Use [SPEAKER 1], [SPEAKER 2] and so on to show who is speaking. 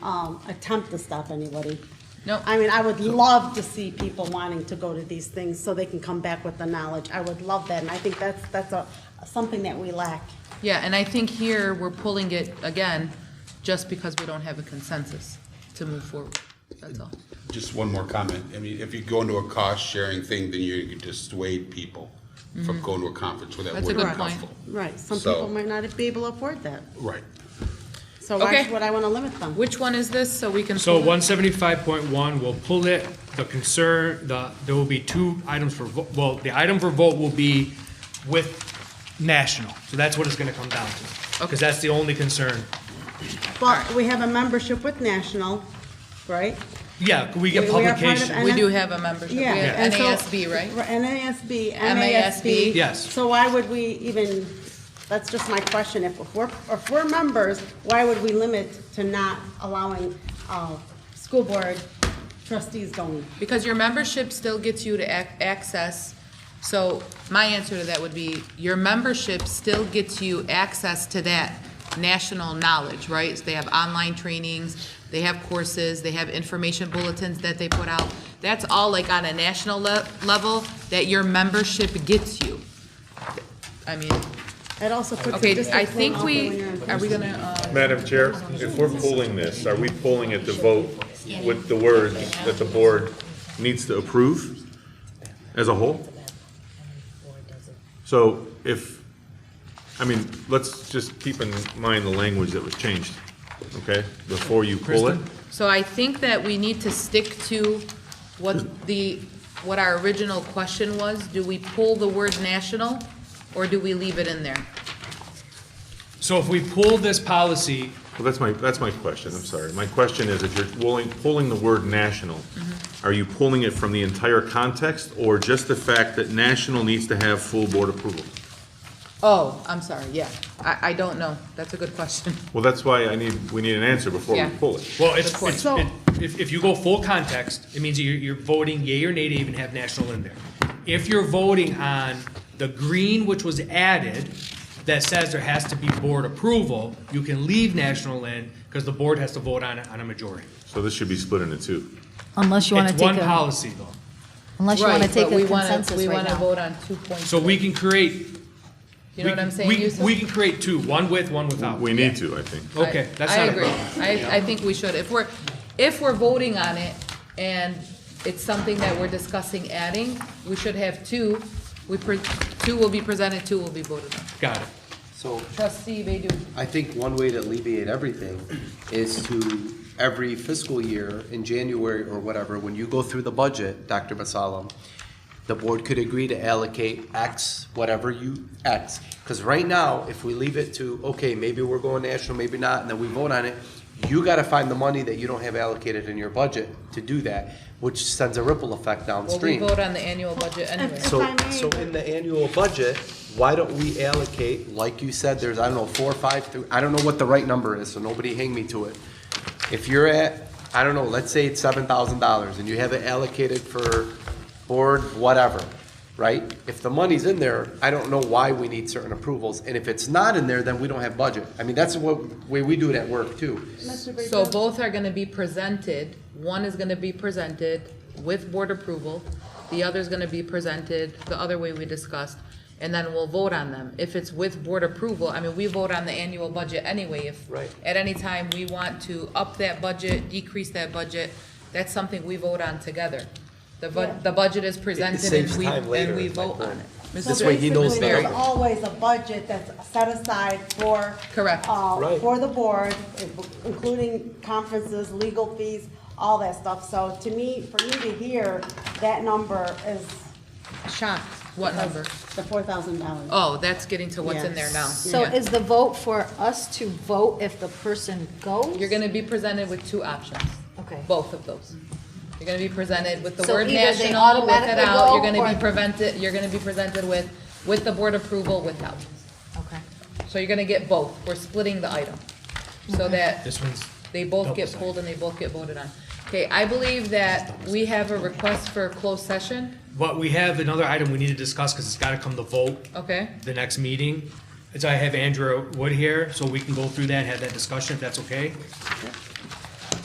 [SPEAKER 1] um, attempt to stop anybody.
[SPEAKER 2] No.
[SPEAKER 1] I mean, I would love to see people wanting to go to these things so they can come back with the knowledge. I would love that, and I think that's, that's a, something that we lack.
[SPEAKER 2] Yeah, and I think here, we're pulling it again, just because we don't have a consensus to move forward, that's all.
[SPEAKER 3] Just one more comment. I mean, if you go into a cost-sharing thing, then you dissuade people from going to a conference where that
[SPEAKER 2] That's a
[SPEAKER 3] would
[SPEAKER 2] good
[SPEAKER 3] not
[SPEAKER 1] Correct.
[SPEAKER 2] point.
[SPEAKER 3] helpful.
[SPEAKER 1] Right, some
[SPEAKER 3] So-
[SPEAKER 1] people might not be able to afford that,
[SPEAKER 3] Right.
[SPEAKER 1] so why
[SPEAKER 2] Okay.
[SPEAKER 1] would I wanna limit them?
[SPEAKER 2] Which one is this, so we can?
[SPEAKER 4] So
[SPEAKER 2] pull it?
[SPEAKER 4] one seventy-five point one, we'll pull it, the concern, the, there will be two items for, vo- well, the item for vote will be with national, so that's what it's gonna come down to.
[SPEAKER 2] Okay.
[SPEAKER 4] Because that's the only concern.
[SPEAKER 1] But we have a membership with National, right?
[SPEAKER 4] Yeah, could we get
[SPEAKER 1] We- we are part of
[SPEAKER 4] publication?
[SPEAKER 1] N-
[SPEAKER 2] We do have a membership, we
[SPEAKER 1] Yeah.
[SPEAKER 2] have
[SPEAKER 1] and so-
[SPEAKER 2] NASB, right?
[SPEAKER 1] NASB,
[SPEAKER 2] MASB.
[SPEAKER 1] MASB.
[SPEAKER 4] Yes.
[SPEAKER 1] So why would we even, that's just my question, if we're, if we're members, why would we limit to not allowing, uh, school board trustees going?
[SPEAKER 2] Because your membership still gets you to ac- access, so my answer to that would be, your membership still gets you access to that national knowledge, right? They have online trainings, they have courses, they have information bulletins that they put out. That's all like on a national le- level that your membership gets you. I mean,
[SPEAKER 1] It also puts the
[SPEAKER 2] okay, I
[SPEAKER 1] district one
[SPEAKER 2] think
[SPEAKER 1] over when
[SPEAKER 2] we,
[SPEAKER 1] you're in
[SPEAKER 2] are we
[SPEAKER 1] person.
[SPEAKER 2] gonna, uh,
[SPEAKER 5] Madam Chair, if we're pulling this, are we pulling it to vote with the words that the board needs to approve as a whole? So if, I mean, let's just keep in mind the language that was changed, okay, before you pull it?
[SPEAKER 2] So I think that we need to stick to what the, what our original question was. Do we pull the word national, or do we leave it in there?
[SPEAKER 4] So if we pull this policy,
[SPEAKER 5] Well, that's my, that's my question, I'm sorry. My question is, if you're pulling, pulling the word national, are you pulling it from the entire context, or just the fact that national needs to have full board approval?
[SPEAKER 2] Oh, I'm sorry, yeah. I, I don't know. That's a good question.
[SPEAKER 5] Well, that's why I need, we need an answer before
[SPEAKER 2] Yeah.
[SPEAKER 5] we pull it.
[SPEAKER 4] well, it's,
[SPEAKER 2] Good point.
[SPEAKER 4] it's, it- if, if you go full context, it means you're, you're voting yea or nay to even have national in there. If you're voting on the green, which was added, that says there has to be board approval, you can leave national in, because the board has to vote on it on a majority.
[SPEAKER 5] So this should be split into two.
[SPEAKER 6] Unless you want to
[SPEAKER 4] It's one
[SPEAKER 6] take a,
[SPEAKER 4] policy though.
[SPEAKER 6] unless you want to
[SPEAKER 2] Right,
[SPEAKER 6] take
[SPEAKER 2] but we
[SPEAKER 6] a
[SPEAKER 2] wanna-
[SPEAKER 6] consensus
[SPEAKER 2] We
[SPEAKER 6] right
[SPEAKER 2] want to
[SPEAKER 6] now.
[SPEAKER 2] vote on two points.
[SPEAKER 4] So we can create.
[SPEAKER 2] You know
[SPEAKER 4] we
[SPEAKER 2] what I'm
[SPEAKER 4] can-
[SPEAKER 2] saying,
[SPEAKER 4] we-
[SPEAKER 2] Yusuf?
[SPEAKER 4] We can create two, one with, one without.
[SPEAKER 5] We need to, I think.
[SPEAKER 2] I-
[SPEAKER 4] Okay, that's not a problem.
[SPEAKER 2] I agree. I, I think we should. If we're, if we're voting on it and it's something that we're discussing adding, we should have two. We, pre- two will be presented, two will be voted on.
[SPEAKER 4] Got it.
[SPEAKER 7] So
[SPEAKER 2] Trustee Baydun.
[SPEAKER 7] I think one way to alleviate everything is to, every fiscal year in January or whatever, when you go through the budget, Dr. Basalam, the board could agree to allocate X, whatever you, X. Because right now, if we leave it to, okay, maybe we're going national, maybe not, and then we vote on it, you gotta find the money that you don't have allocated in your budget to do that, which sends a ripple effect
[SPEAKER 2] Well, we
[SPEAKER 7] downstream.
[SPEAKER 2] vote on the annual budget anyway.
[SPEAKER 1] If
[SPEAKER 7] So,
[SPEAKER 1] I may,
[SPEAKER 7] so in the annual budget, why don't we allocate, like you said, there's, I don't know, four, five, three, I don't know what the right number is, so nobody hang me to it. If you're at, I don't know, let's say it's seven thousand dollars and you have it allocated for board, whatever, right? If the money's in there, I don't know why we need certain approvals, and if it's not in there, then we don't have budget. I mean, that's what, way we do it at work too.
[SPEAKER 2] So both are gonna be presented, one is gonna be presented with board approval, the other's gonna be presented the other way we discussed, and then we'll vote on them. If it's with board approval, I mean, we vote on the annual budget anyway, if
[SPEAKER 7] Right.
[SPEAKER 2] at any time we want to up that budget, decrease that budget, that's something we vote on together. The bu- the budget is presented and
[SPEAKER 7] saves
[SPEAKER 2] we,
[SPEAKER 7] time later,
[SPEAKER 2] and we
[SPEAKER 7] is my
[SPEAKER 2] vote on
[SPEAKER 7] point.
[SPEAKER 2] it.
[SPEAKER 1] So
[SPEAKER 2] Mrs.
[SPEAKER 7] This way he knows
[SPEAKER 1] basically,
[SPEAKER 7] the
[SPEAKER 1] There's
[SPEAKER 7] number.
[SPEAKER 1] always a budget that's set aside for.
[SPEAKER 2] Correct.
[SPEAKER 1] Uh,
[SPEAKER 7] Right.
[SPEAKER 1] for the board, including conferences, legal fees, all that stuff. So to me, for me to hear that number is a shock.
[SPEAKER 2] What number?
[SPEAKER 1] The four thousand dollars.
[SPEAKER 2] Oh, that's getting to what's in there now.
[SPEAKER 6] So
[SPEAKER 2] Yeah.
[SPEAKER 6] is the vote for us to vote if the person goes?
[SPEAKER 2] You're gonna be presented with two options.
[SPEAKER 6] Okay.
[SPEAKER 2] Both of those. You're gonna be presented with the
[SPEAKER 6] So
[SPEAKER 2] word
[SPEAKER 6] either they
[SPEAKER 2] national, with it
[SPEAKER 6] automatically
[SPEAKER 2] out, you're
[SPEAKER 6] go
[SPEAKER 2] gonna be
[SPEAKER 6] or-
[SPEAKER 2] prevented, you're gonna be presented with, with the board approval, without.
[SPEAKER 6] Okay.
[SPEAKER 2] So you're gonna get both, we're splitting the item, so that
[SPEAKER 4] This one's.
[SPEAKER 2] they both get pulled and they both get voted on. Okay, I believe that we have a request for a closed session,
[SPEAKER 4] But we have another item we need to discuss because it's got to come to vote
[SPEAKER 2] okay?
[SPEAKER 4] the next meeting. As I have Andrew Wood here, so we can go through that, and have that discussion if that's okay.